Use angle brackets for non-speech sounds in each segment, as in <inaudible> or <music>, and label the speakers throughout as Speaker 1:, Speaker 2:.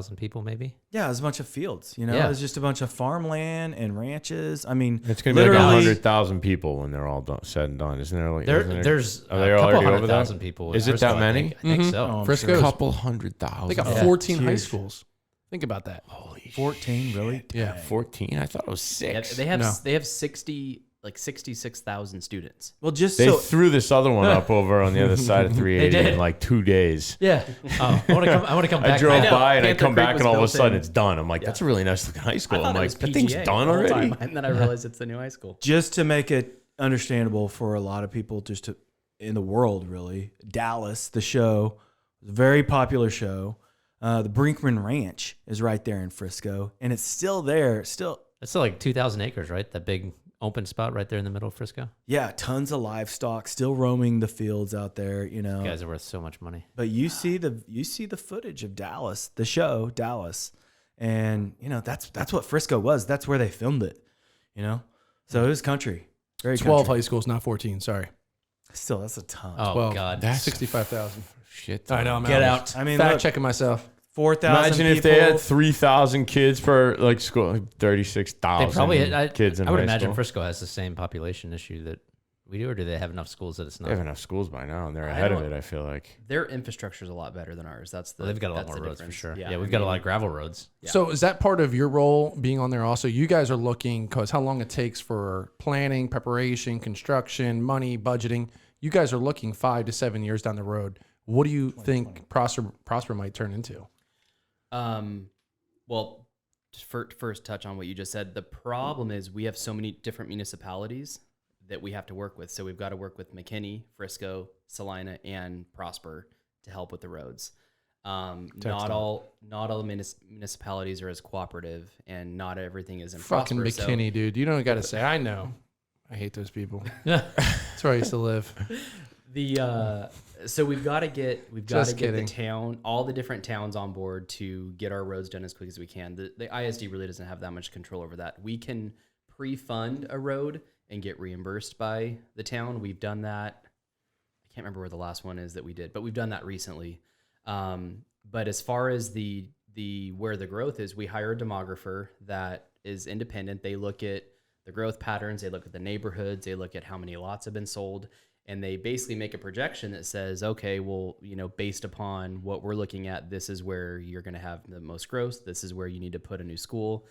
Speaker 1: thousand people, maybe.
Speaker 2: Yeah, it was a bunch of fields. You know,
Speaker 1: Yeah.
Speaker 2: it was just a bunch of farmland and ranches. I mean,
Speaker 3: It's going to be like
Speaker 2: Literally-
Speaker 3: like hundred thousand people when they're all done, said and done, isn't there? Like
Speaker 1: There,
Speaker 3: isn't there-
Speaker 1: there's
Speaker 3: are they
Speaker 1: a couple
Speaker 3: already
Speaker 1: hundred
Speaker 3: over that?
Speaker 1: thousand people. in
Speaker 3: Is it
Speaker 1: Frisco,
Speaker 3: that
Speaker 1: I
Speaker 3: many?
Speaker 1: think. I think
Speaker 4: Mhm.
Speaker 1: so.
Speaker 2: Oh, I'm
Speaker 4: Frisco's.
Speaker 2: sure.
Speaker 4: Goes-
Speaker 3: couple hundred thousand.
Speaker 4: They got
Speaker 1: Yeah.
Speaker 4: 14 high
Speaker 2: Huge.
Speaker 4: schools. Think about that.
Speaker 3: Holy
Speaker 2: 14, really?
Speaker 4: Yeah.
Speaker 2: Dang.
Speaker 3: fourteen. I thought it was
Speaker 5: Yeah,
Speaker 3: six.
Speaker 5: they have
Speaker 4: No.
Speaker 5: s they have sixty like sixty six thousand students.
Speaker 2: Well, just
Speaker 3: They
Speaker 2: so
Speaker 3: threw this other one up over on the
Speaker 1: <laughs>
Speaker 3: other side of 380 in
Speaker 1: did.
Speaker 3: like two days.
Speaker 1: Yeah. Oh, I want to come. I want to come back.
Speaker 3: I drove
Speaker 1: know.
Speaker 3: by and I
Speaker 5: Panther
Speaker 3: come
Speaker 5: Creek
Speaker 3: back
Speaker 5: was
Speaker 3: and all of a
Speaker 5: built
Speaker 3: sudden
Speaker 5: in.
Speaker 3: it's done. I'm like, that's a really nice looking high school. I'm like, that thing's done
Speaker 5: the whole
Speaker 3: already.
Speaker 5: time, and then I realized it's the new high school.
Speaker 2: just to make it understandable for a lot of people just to in the world really dallas the show was a very popular show uh, the brinkman ranch is right there in frisco and it's still there still
Speaker 1: That's still like two thousand acres, right? That big open spot right there in the middle of Frisco.
Speaker 2: yeah tons of livestock still roaming the fields out there you know
Speaker 1: You guys are worth so much money.
Speaker 2: but you see the you see the footage of dallas the show dallas and you know that's that's what frisco was that's where they filmed it you know so it was country very
Speaker 4: 12
Speaker 2: country.
Speaker 4: high schools, not 14. Sorry.
Speaker 2: still that's a ton
Speaker 1: Oh
Speaker 4: 12.
Speaker 1: God.
Speaker 3: That's
Speaker 4: 65,000.
Speaker 3: shit.
Speaker 4: I know. I'm
Speaker 2: Get
Speaker 4: out.
Speaker 2: out. I mean,
Speaker 4: fact
Speaker 2: look-
Speaker 4: checking myself.
Speaker 2: 4000
Speaker 3: Imagine if they
Speaker 2: people.
Speaker 3: had 3,000 kids per like school, like
Speaker 1: They
Speaker 3: 36,000
Speaker 1: probably. I,
Speaker 3: kids in
Speaker 1: I would
Speaker 3: high
Speaker 1: imagine
Speaker 3: school.
Speaker 1: Frisco has the same population issue that we do, or do they have enough schools that it's not?
Speaker 3: They have enough schools by now and they're
Speaker 5: I
Speaker 3: ahead of
Speaker 5: don't-
Speaker 3: it, I feel like.
Speaker 5: Their infrastructure is a lot better than ours. That's the
Speaker 1: Well, they've got a lot
Speaker 5: that's
Speaker 1: more
Speaker 5: the
Speaker 1: roads
Speaker 5: difference.
Speaker 1: for sure. Yeah,
Speaker 5: I
Speaker 1: we've got a
Speaker 5: mean,
Speaker 1: lot of gravel roads.
Speaker 5: Yeah.
Speaker 4: So is that part of your role being on there also? You guys are looking because how long it takes for planning, preparation, construction, money, budgeting. You guys are looking five to seven years down the road. What do you think Prosper Prosper might turn into?
Speaker 5: Um, well, just fir- first touch on what you just said. The problem is we have so many different municipalities that we have to work with. So we've got to work with McKinney, Frisco, Salina, and Prosper to help with the roads. Um, not
Speaker 4: Textile.
Speaker 5: all not all munis- municipalities are as cooperative, and not everything is in
Speaker 4: Fucking
Speaker 5: Prosper. so-
Speaker 4: McKinney, dude. You don't got to say. I know. I hate those people. That's where I used to live.
Speaker 5: the uh, so we've got to get we've got to
Speaker 4: Just
Speaker 5: get the
Speaker 4: kidding.
Speaker 5: town all the different towns on board to get our roads done as quick as we can. The, the ISD really doesn't have that much control over that. We can pre-fund a road and get reimbursed by the town. We've done that. I can't remember where the last one is that we did, but we've done that recently. Um, but as far as the the where the growth is, we hire a demographer that is independent. They look at the growth patterns, they look at the neighborhoods, they look at how many lots have been sold, and they basically make a projection that says, okay, well, you know, based upon what we're looking at, this is where you're going to have the most growth. This is where you need to put a new school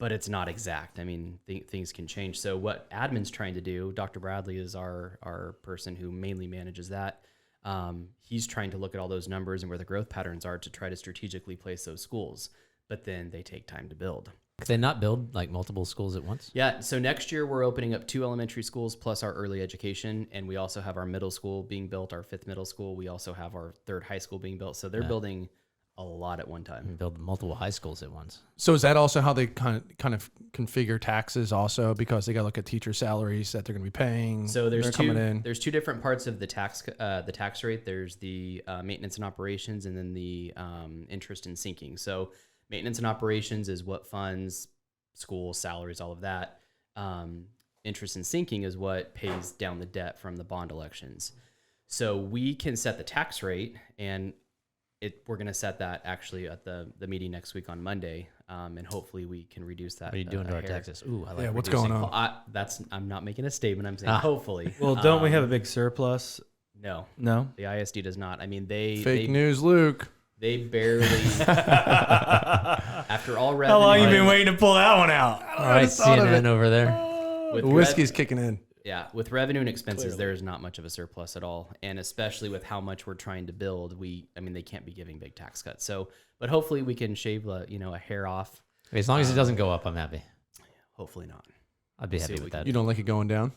Speaker 5: but it's not exact. I mean, th- things can change. So what admin's trying to do, Dr. Bradley is our our person who mainly manages that. Um, he's trying to look at all those numbers and where the growth patterns are to try to strategically place those schools. But then they take time to build.
Speaker 1: Could they not build like multiple schools at once?
Speaker 5: Yeah. So next year we're opening up two elementary schools plus our early education, and we also have our middle school being built, our fifth middle school. We also have our third high school being built. So they're building a lot at one time.
Speaker 1: Build multiple high schools at once.
Speaker 4: So is that also how they kind of, kind of configure taxes also because they got to look at teacher salaries that they're going to be
Speaker 1: Mm-hmm.
Speaker 4: paying.
Speaker 5: So there's
Speaker 4: they're
Speaker 5: two
Speaker 4: coming in.
Speaker 5: there's two different parts of the tax c- uh, the tax rate. There's the uh, maintenance and operations, and then the um, interest and sinking. So maintenance and operations is what funds school salaries, all of that. Um, interest and sinking is what pays down the debt from the bond elections. So we can set the tax rate, and it we're going to set that actually at the the meeting next week on Monday, um, and hopefully we can reduce that.
Speaker 1: What are you
Speaker 5: a-
Speaker 1: doing
Speaker 5: a
Speaker 1: to our
Speaker 5: hair.
Speaker 1: taxes? Ooh, I like
Speaker 4: yeah, what's
Speaker 1: reducing-
Speaker 4: going on?
Speaker 5: Well, I, that's I'm not making a statement. I'm saying
Speaker 1: Ah.
Speaker 4: <laughs>
Speaker 5: hopefully.
Speaker 2: Well, don't we
Speaker 5: Um,
Speaker 2: have a big surplus?
Speaker 5: <laughs> No,
Speaker 2: No.
Speaker 5: the ISD does not. I mean, they
Speaker 4: Fake
Speaker 5: they,
Speaker 4: news, Luke.
Speaker 5: they
Speaker 4: <laughs>
Speaker 5: barely <laughs>
Speaker 2: How
Speaker 5: after all revenue.
Speaker 2: long you been waiting to pull that one out?
Speaker 1: All right,
Speaker 4: thought of
Speaker 1: CNN over
Speaker 5: <laughs>
Speaker 1: there.
Speaker 5: With
Speaker 4: The
Speaker 5: rev-
Speaker 4: whiskey's kicking in.
Speaker 5: yeah, with revenue and expenses, there is not much of a surplus at all, and especially with how much we're trying to build, we I mean they can't be giving big tax cuts. So, but hopefully we can shave uh, you know a hair off.
Speaker 1: As long as it doesn't go up, I'm happy.
Speaker 5: Hopefully not.
Speaker 1: I'd be
Speaker 5: see
Speaker 1: happy
Speaker 5: what we
Speaker 1: with
Speaker 5: can
Speaker 1: that.
Speaker 4: You don't like it going down?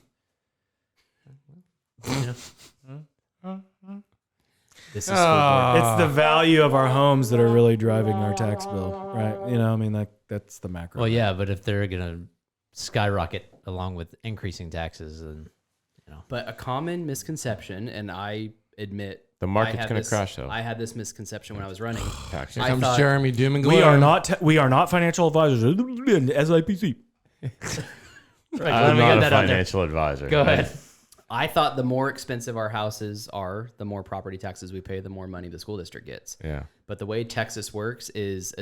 Speaker 5: This is
Speaker 4: Oh.
Speaker 5: school board.
Speaker 4: uh,
Speaker 2: It's the value of our homes that are really driving our tax bill, right? You know, I mean, like that's the macro.
Speaker 1: Well, yeah, but if they're gonna skyrocket along with increasing taxes, then
Speaker 5: But a common misconception, and I admit
Speaker 3: The
Speaker 5: I
Speaker 3: market's
Speaker 5: had
Speaker 3: gonna
Speaker 5: this-
Speaker 3: crash, though.
Speaker 5: I had this misconception when I was running.
Speaker 3: Taxes.
Speaker 4: <sighs> Here
Speaker 5: I
Speaker 4: comes
Speaker 5: thought-
Speaker 4: Jeremy Doom and
Speaker 2: we
Speaker 4: gloom.
Speaker 2: are not ta- we are not financial advisors. <laughs> SIPC.
Speaker 3: I'm
Speaker 1: me get
Speaker 3: not a
Speaker 1: that on there.
Speaker 3: financial advisor.
Speaker 1: go ahead.
Speaker 5: I thought the more expensive our houses are, the more property taxes we pay, the more money the school district gets.
Speaker 3: Yeah.
Speaker 5: But the way Texas works is